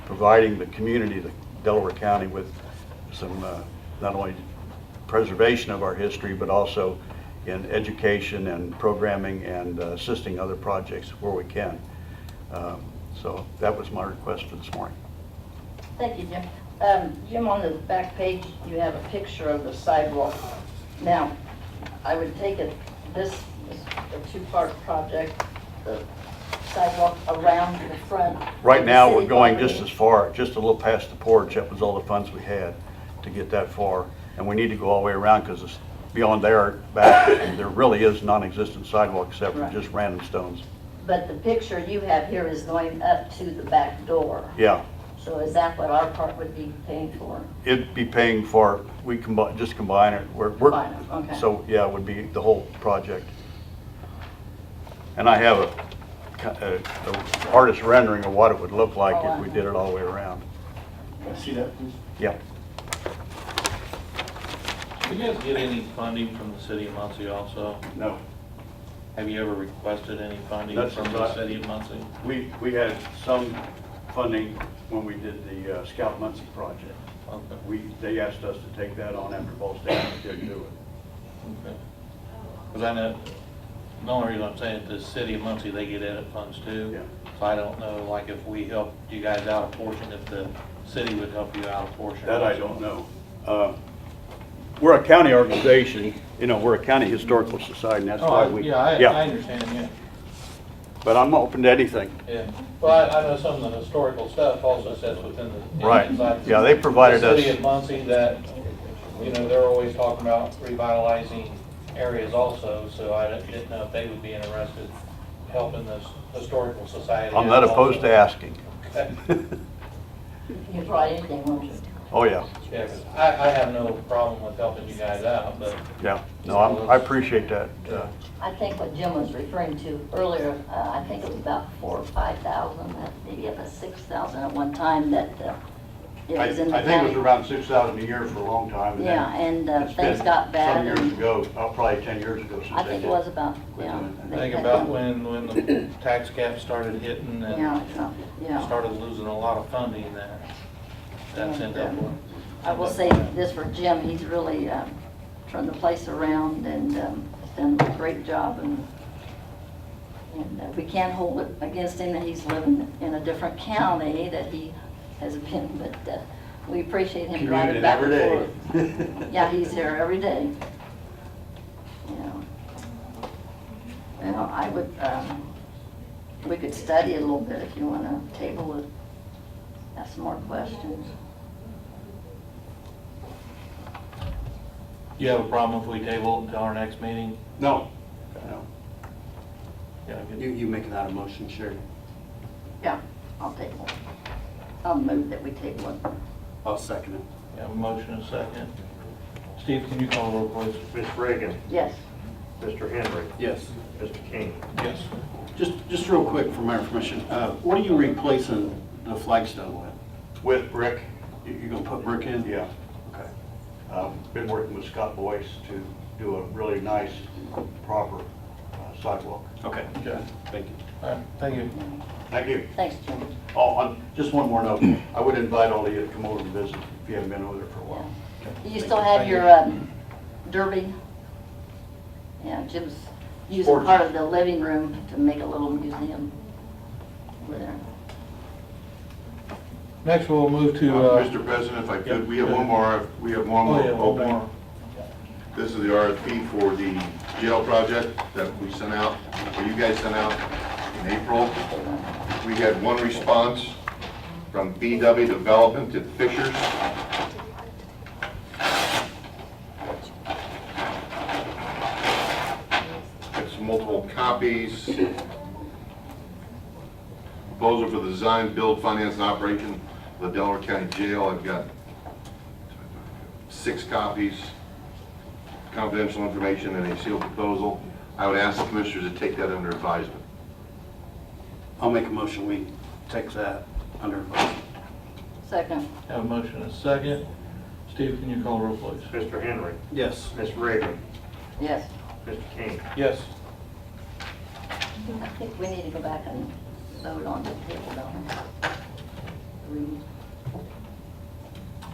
providing the community, the Delaware County, with some, uh, not only preservation of our history, but also in education and programming and uh, assisting other projects where we can. Um, So that was my request for this morning. Thank you, Jim. Um, Jim, on the back page, you have a picture of the sidewalk. Now, I would take it, this is a two-part project, the sidewalk around the front. Right of the now, city we're going property. just as far, just a little past the porch, that was all the funds we had to get that far. And we need to go all the way around, because it's beyond there, back, there really is non-existent sidewalk except for Right. just random stones. But the picture you have here is going up to the back door. Yeah, So is that what our part would be paying for? it'd be paying for, we combine, just combine it, we're, we're, Combine it, okay. so, yeah, it would be the whole project. And I have a, a- a artist rendering of what it would look like if we did it all the way around. Can I see that, please? Yeah. Do you guys get any funding from the city of Muncie also? No. Have you ever requested any funding That's from right. the city of Muncie? We, we had some funding when we did the uh, Scout Muncie project. Okay, We, they asked us to take that on after Ball State didn't do it. okay. Because I know, the only reason I'm saying, the city of Muncie, they get edit funds too. Yeah. So I don't know, like, if we helped you guys out a portion, if the city would help you out a portion. That I don't know. Uh, We're a county organization, you know, we're a county historical society, and that's Oh, why I- we. yeah, I, I understand, yeah. But I'm open to anything. Yeah, well, I, I know some of the historical stuff also sits within the. Right. inside Yeah, they provided The city us- of Muncie that, you know, they're always talking about revitalizing areas also, so I didn't- didn't know if they would be interested in helping this historical society. I'm not opposed to asking. Okay. You brought anything, won't you? Oh, yeah, Yeah, 'cause I, I have no problem with helping you guys out, but, yeah. No, I'm- I appreciate that. uh, I think what Jim was referring to earlier, uh, I think it was about four or five thousand, maybe up to six thousand at one time that uh, it I I was in think the it was county. around 6,000 a year for a long time. and then Yeah, and uh, it's things been got bad. Some years and ago, uh, probably 10 years ago since I they think it did. was about, yeah. I think about when, when the tax cap started hitting Yeah, and yeah, yeah. started losing a lot of funding there. That's in that one. I will say this for Jim, he's really uh, turned the place around and um, done a great job and and uh, we can't hold it against him that he's living in a different county that he has been, but uh, we appreciate him Commuted driving back and every forth. day. Yeah, he's here every day. Yeah. Well, I would, um, we could study it a little bit if you want to table it, ask some more questions. You have a problem if we table it until our next meeting? No. No. Yeah, I You, get- you making that a motion, Sherry? Yeah, I'll table it. I'll move that we table it. I'll second it. yeah, motion and second. Steve, can you call the roll, please? Ms. Reagan, Yes. Mr. Henry, Yes. Mr. King. Yes. Just, just real quick for my information, uh, what are you replacing the flagstone with? With Rick, You, you gonna put brick in? yeah. Okay. Um, Been working with Scott Boyce to do a really nice, proper uh, sidewalk. Okay. Okay. Thank you. All right, thank you. Thank you. Thanks, Jim. Oh, um, just one more note. I would invite all of you to come over and visit if you haven't been over there for a while. Do you still have your um, derby? Yeah, Jim's using Porch. part of the living room to make a little museum over there. Next, we'll move to, Uh, uh, Mr. President, if I yeah, could, we have go one more, we have one oh, more yeah, one more. opening. This is the RFP for the jail project that we sent out, or you guys sent out in April. We had one response from BW Development to Fishers. It's multiple copies. Proposal for the design, build, finance, and operation of the Delaware County Jail. I've got six copies confidential information and a sealed proposal. I would ask the commissioners to take that under advisement. I'll make a motion, we take that under advisement. Second, Have a motion and second. Steve, can you call the roll, please? Mr. Henry, Yes. Ms. Reagan, yes. Mr. King. Yes. I think we need to go back and vote on the table, don't we? read.